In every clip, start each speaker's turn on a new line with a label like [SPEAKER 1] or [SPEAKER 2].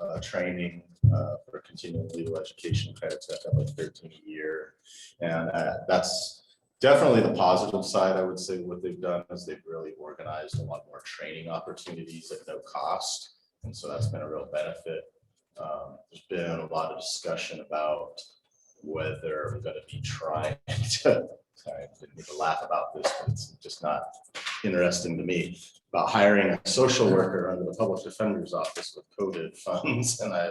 [SPEAKER 1] a training uh, for continuing legal education credits that have like thirteen a year. And uh, that's definitely the positive side, I would say, what they've done is they've really organized a lot more training opportunities at no cost. And so that's been a real benefit. Um, There's been a lot of discussion about whether we're gonna be trying to, sorry, I didn't mean to laugh about this, but it's just not interesting to me about hiring a social worker under the public defender's office with coded funds and I,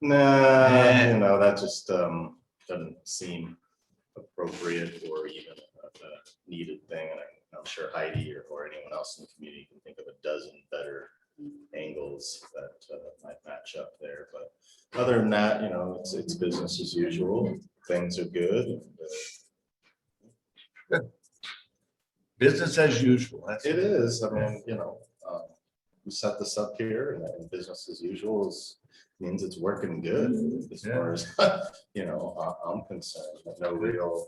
[SPEAKER 1] nah, you know, that just um, doesn't seem appropriate or even a a needed thing. And I'm- I'm sure Heidi or, or anyone else in the community can think of a dozen better angles that uh, might match up there. But other than that, you know, it's, it's business as usual. Things are good. and, uh,
[SPEAKER 2] Business as usual. That's
[SPEAKER 1] It is, I mean, you know, um, we set this up here and then business as usual is, means it's working good as far as, you know, I- I'm concerned. But No real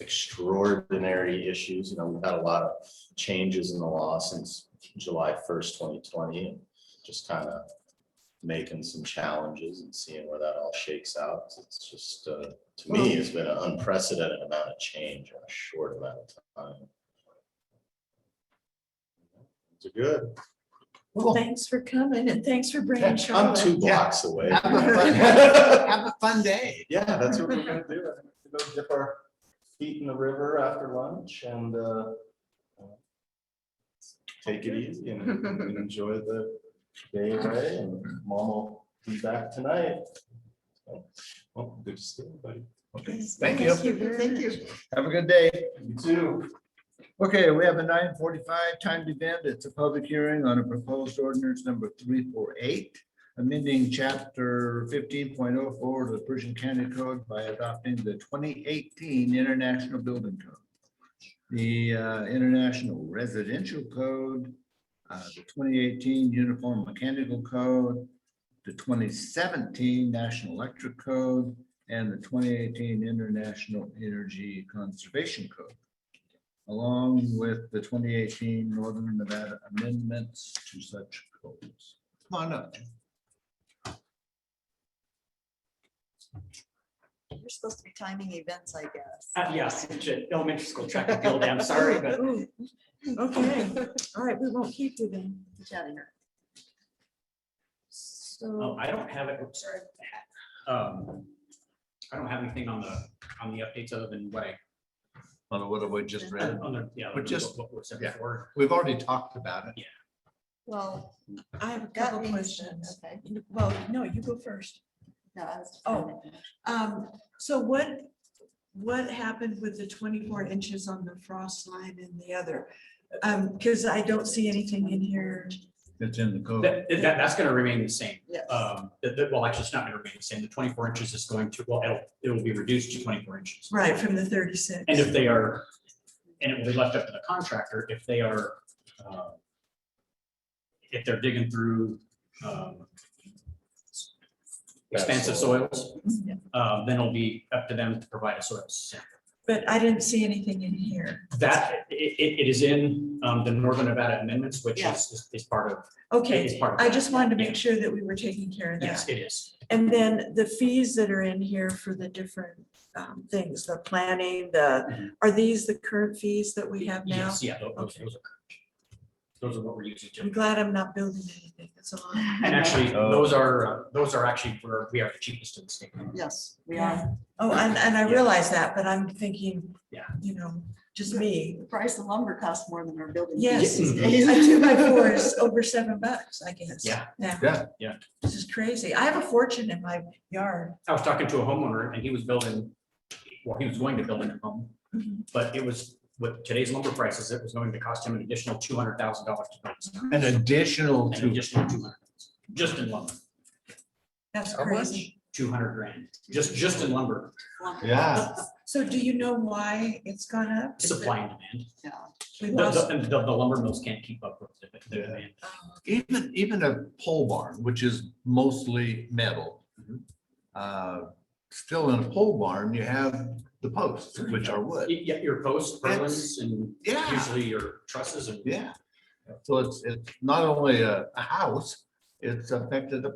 [SPEAKER 1] extraordinary issues, you know, we've had a lot of changes in the law since July first, twenty twenty. and Just kind of making some challenges and seeing where that all shakes out. It's just, uh, to me, it's been an unprecedented amount of change in a short amount of time. It's good.
[SPEAKER 3] Well, thanks for coming and thanks for bringing
[SPEAKER 1] I'm two
[SPEAKER 3] Charlotte.
[SPEAKER 1] blocks away.
[SPEAKER 4] Have a fun-
[SPEAKER 1] Yeah,
[SPEAKER 4] Have a fun day.
[SPEAKER 1] that's what we're gonna do. I think we're gonna Go dip our feet in the river after lunch and uh, take it easy and and enjoy the day away and mom will be back tonight. So, Well, good to see everybody.
[SPEAKER 2] Thank you.
[SPEAKER 3] very
[SPEAKER 4] Thank
[SPEAKER 3] much.
[SPEAKER 4] you.
[SPEAKER 2] Have a good day.
[SPEAKER 1] You too.
[SPEAKER 2] Okay, we have a nine forty-five timed event. It's a public hearing on a proposed ordinance number three four eight. Amending chapter fifteen point oh four of the Persian County Code by adopting the twenty eighteen International Building Code. The uh, International Residential Code, uh, the twenty eighteen Uniform Mechanical Code. The twenty seventeen National Electric Code and the twenty eighteen International Energy Conservation Code along with the twenty eighteen Northern Nevada amendments to such codes. Come on up.
[SPEAKER 3] You're supposed to be timing events, I guess.
[SPEAKER 5] Uh, yes, it's an elementary school track and field, I'm sorry, but
[SPEAKER 3] Ooh, Oh, Okay, all right, we won't keep you then. Get out of here.
[SPEAKER 5] oh,
[SPEAKER 3] So,
[SPEAKER 5] um, I don't have it, oops, sorry. Um, I don't have anything on the, on the updates other than what I,
[SPEAKER 2] On what have we just read?
[SPEAKER 5] on the, yeah.
[SPEAKER 2] But just-
[SPEAKER 5] What was said
[SPEAKER 2] yeah.
[SPEAKER 5] before.
[SPEAKER 2] We've already talked about it.
[SPEAKER 4] Well,
[SPEAKER 3] I have a couple
[SPEAKER 4] got
[SPEAKER 3] questions.
[SPEAKER 4] questions. Okay.
[SPEAKER 3] Well, no, you go first.
[SPEAKER 4] No, I was-
[SPEAKER 3] Oh. Um, so what, what happened with the twenty-four inches on the frost line and the other? Um, cause I don't see anything in here.
[SPEAKER 2] It's in the code.
[SPEAKER 5] That, that, that's gonna remain the same.
[SPEAKER 4] Yes.
[SPEAKER 5] Um, that, that, well, actually, it's not gonna remain the same, the twenty-four inches is going to, well, it'll, it will be reduced to twenty-four inches.
[SPEAKER 3] Right, from the thirty-six.
[SPEAKER 5] And if they are, and it will be left up to the contractor, if they are, uh, if they're digging through, um, expansive soils,
[SPEAKER 3] Yeah.
[SPEAKER 5] um, then it'll be up to them to provide a soil sample.
[SPEAKER 3] But I didn't see anything in here.
[SPEAKER 5] That, it, it, it is in, um, the Northern Nevada amendments, which
[SPEAKER 4] Yeah.
[SPEAKER 5] is, is part of,
[SPEAKER 3] Okay,
[SPEAKER 5] is part of.
[SPEAKER 3] I
[SPEAKER 5] that.
[SPEAKER 3] just wanted to
[SPEAKER 5] Yeah.
[SPEAKER 3] make sure that we were taking care of
[SPEAKER 5] Yes,
[SPEAKER 3] that.
[SPEAKER 5] it is.
[SPEAKER 3] And then the fees that are in here for the different um, things, the planning, the,
[SPEAKER 5] Mhm.
[SPEAKER 3] are these the current fees that we have now?
[SPEAKER 5] Yes, yeah, tho- those,
[SPEAKER 3] Okay.
[SPEAKER 5] those are correct. Those are what we're using.
[SPEAKER 3] I'm
[SPEAKER 5] Jim.
[SPEAKER 3] glad I'm not building anything. That's a lot.
[SPEAKER 5] And actually,
[SPEAKER 2] Oh.
[SPEAKER 5] those are, uh, those are actually where we are the cheapest in the state.
[SPEAKER 4] Yes, we
[SPEAKER 3] Yeah.
[SPEAKER 4] are.
[SPEAKER 3] Oh, and, and I
[SPEAKER 5] Yeah.
[SPEAKER 3] realize that, but I'm thinking,
[SPEAKER 5] Yeah.
[SPEAKER 3] you know, just me.
[SPEAKER 4] The price of lumber costs more than our building.
[SPEAKER 3] Yes,
[SPEAKER 4] fees
[SPEAKER 3] a
[SPEAKER 4] these
[SPEAKER 5] Mm-hmm.
[SPEAKER 4] days.
[SPEAKER 3] two by four is over seven bucks, I guess.
[SPEAKER 5] Yeah.
[SPEAKER 3] Now.
[SPEAKER 2] Yeah.
[SPEAKER 5] Yeah.
[SPEAKER 3] This is crazy. I have a fortune in my yard.
[SPEAKER 5] I was talking to a homeowner and he was building, well, he was going to build a new home,
[SPEAKER 3] Mhm.
[SPEAKER 5] but it was, with today's lumber prices, it was going to cost him an additional two hundred thousand dollars to build. this house.
[SPEAKER 2] An additional
[SPEAKER 5] An
[SPEAKER 2] to,
[SPEAKER 5] additional two hundred, just in lumber,
[SPEAKER 3] That's
[SPEAKER 2] How much?
[SPEAKER 3] crazy.
[SPEAKER 5] two hundred grand, just, just in lumber,
[SPEAKER 4] Lumber,
[SPEAKER 2] yeah,
[SPEAKER 3] So do you know why it's gone up? Is it-
[SPEAKER 5] supply and demand.
[SPEAKER 4] yeah.
[SPEAKER 3] We
[SPEAKER 5] The,
[SPEAKER 3] lost.
[SPEAKER 5] the- the- the lumber mills can't keep up with the- the
[SPEAKER 2] Yeah.
[SPEAKER 5] demand.
[SPEAKER 3] oh,
[SPEAKER 2] even, even a pole barn, which is mostly metal. uh, Still in a pole barn, you have the posts, which are wood.
[SPEAKER 5] Y- Yeah, your posts, purlins, and
[SPEAKER 2] Yeah,
[SPEAKER 5] usually your trusses and
[SPEAKER 2] yeah. So it's, it's not only a, a house, it's affected the